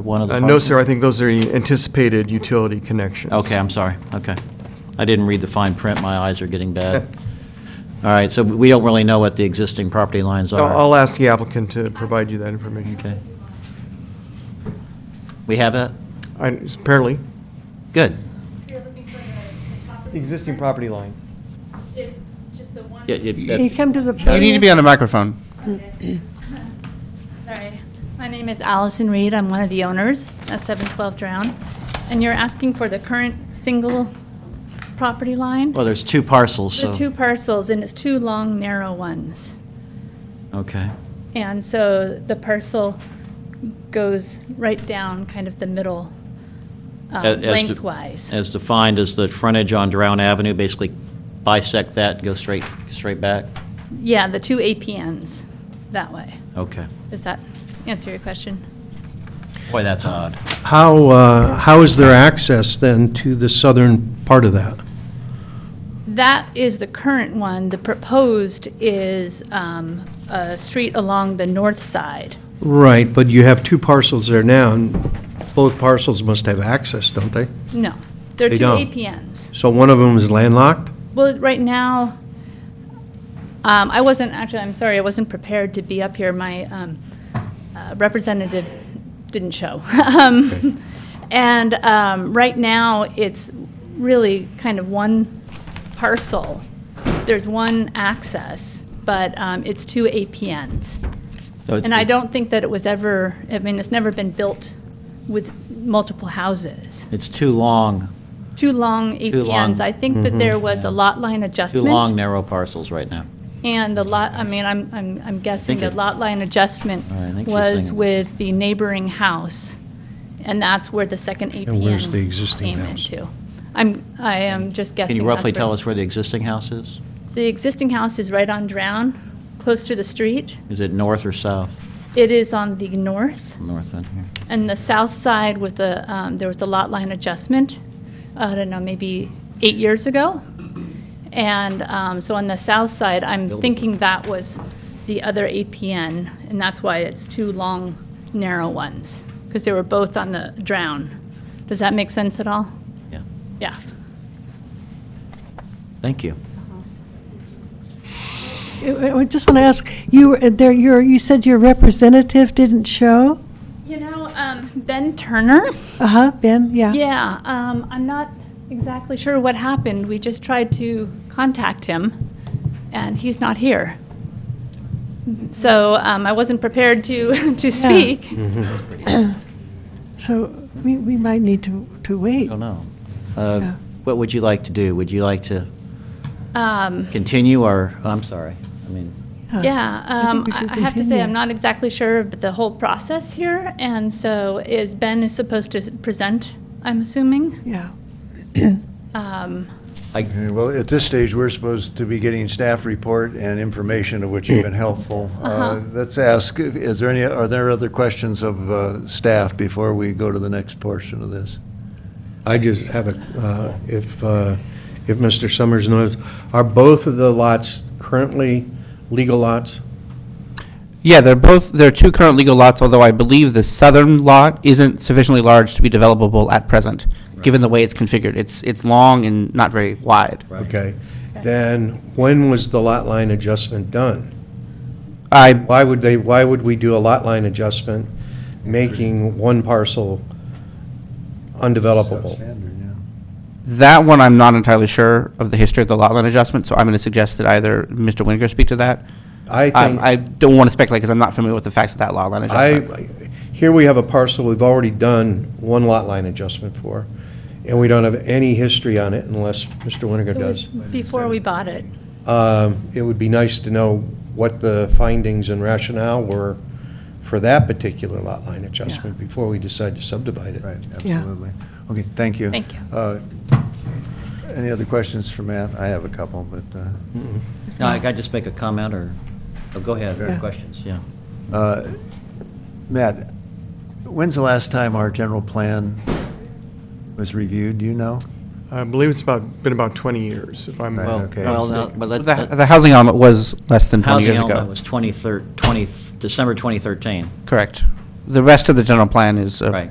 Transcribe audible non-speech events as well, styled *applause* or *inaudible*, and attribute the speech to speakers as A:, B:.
A: one of the
B: Uh,
A: parcels?
B: No, sir, I think those are anticipated utility connections.
A: Okay, I'm sorry, okay. I didn't read the fine print, my eyes are getting
B: *laughs*
A: bad. All right, so we don't really know what the existing property lines
B: I'll
A: are?
B: I'll ask the applicant to provide you that information.
A: Okay. We have it?
B: I- Apparently,
A: Good.
C: So you're looking for the- the top of the
B: existing
C: chart?
B: property line.
C: It's just the one.
A: Yeah, yeah,
D: Can you
A: that-
D: come to the
E: You need to be
D: podium?
E: on the microphone.
C: Okay. Sorry. My name is Allison Reed. I'm one of the owners at 712 Drown. And you're asking for the current single property line?
A: Well, there's two parcels, so...
C: The two parcels, and it's two long, narrow ones.
A: Okay,
C: And so the parcel goes right down kind of the middle um,
A: As- as to-
C: lengthwise.
A: as defined as the frontage on Drown Avenue, basically bisect that, go straight, straight back?
C: Yeah, the two APNs that way.
A: Okay.
C: Does that answer your question?
A: Boy, that's odd.
F: How, uh, how is there access then to the southern part of that?
C: That is the current one. The proposed is um, a street along the north side.
F: Right, but you have two parcels there now, and both parcels must have access, don't they?
C: No, they're
F: They
C: two
F: don't.
C: APNs.
F: So one of them is landlocked?
C: Well, right now, um, I wasn't, actually, I'm sorry, I wasn't prepared to be up here. My um, uh, representative didn't show. *laughs* Um, And um, right now, it's really kind of one parcel. There's one access, but um, it's two APNs.
A: So Oh, it's-
C: And I don't think that it was ever, I mean, it's never been built with multiple houses.
A: It's too long,
C: Two long
A: long. Mm-hmm.
C: APNs. I think that there was a lot line
A: too
C: adjustment.
A: long, narrow parcels right now.
C: And the lot, I mean, I'm, I'm I'm guessing
A: Think it-
C: the lot line adjustment
A: All right, I think she's
C: was
A: saying-
C: with the neighboring house, and that's where the second
F: And where's the
C: APN
F: existing
C: came
F: house?
C: into. I'm, I am just guessing.
A: Can you roughly
C: that's
A: tell us where the existing house is?
C: The existing house is right on Drown, close to the street.
A: Is it north or south?
C: It is on the north,
A: North on here.
C: and the south side with the, um, there was a lot line adjustment, I don't know, maybe eight years ago. And um, so on the south side, I'm thinking that was the other APN, and that's why it's two long, narrow ones, because they were both on the drown. Does that make sense at all?
A: Yeah,
C: Yeah.
A: thank you.
D: I just want to ask, you, were- there, you're, you said your representative didn't show?
C: You know, um, Ben Turner,
D: Uh-huh, Ben, yeah.
C: yeah, um, I'm not exactly sure what happened. We just tried to contact him, and he's not here. So um, I wasn't prepared to, *laughs* to speak.
D: So we, we might need to, to wait.
A: Don't know. Uh,
D: Yeah.
A: What would you like to do? Would you like to
C: Um,
A: continue or, I'm sorry, I mean,
D: Huh.
C: Yeah,
D: I think
C: um,
D: we
C: I
D: should
C: I have to say, I'm
D: continue.
C: not exactly sure of the whole process here, and so is, Ben is supposed to present, I'm assuming?
D: Yeah.
C: Um,
G: Yeah, Well, at this stage, we're supposed to be getting staff report and information of which you've been helpful. Uh, Let's ask, is there any, are there other questions of uh, staff before we go to the next portion of this?
F: I just have a, uh, if, uh, if Mr. Summers knows, are both of the lots currently legal lots?
E: Yeah, they're both, there are two current legal lots, although I believe the southern lot isn't sufficiently large to be developable at present, given the way it's configured. It's, it's long and not very wide.
F: Okay. Then when was the lot line adjustment done?
E: I,
F: Why would they, why would we do a lot line adjustment, making one parcel undevelopable?
G: Substandard, yeah.
E: that one, I'm not entirely sure of the history of the lot line adjustment, so I'm going to suggest that either Mr. Winiger speak to that.
F: I
E: Um, I
F: think,
E: don't want to speculate because I'm not familiar with the facts of that lot line adjustment.
F: I, here we have a parcel we've already done one lot line adjustment for, and we don't have any history on it unless Mr. Winiger
C: It was
F: does.
C: before we bought it.
F: Um, It would be nice to know what the findings and rationale were for that particular lot line adjustment before we decide to subdivide it.
G: Right,
D: Yeah.
G: absolutely. Okay, thank you.
C: Thank you.
G: Uh, Any other questions for Matt? I have a couple, but, uh,
A: no, I I just make a comment or, oh, go ahead,
G: Yeah.
A: questions, yeah.
G: uh, Matt, when's the last time our general plan was reviewed, do you know?
B: I believe it's about, been about 20 years, if I'm
G: Well,
B: not
G: okay.
A: Well, no,
B: mistaken.
A: but let-
E: The the housing element was less than 20
A: Housing
E: years
A: element
E: ago.
A: was 23 20 December 2013.
E: Correct. the rest of the general plan is uh,
A: Right.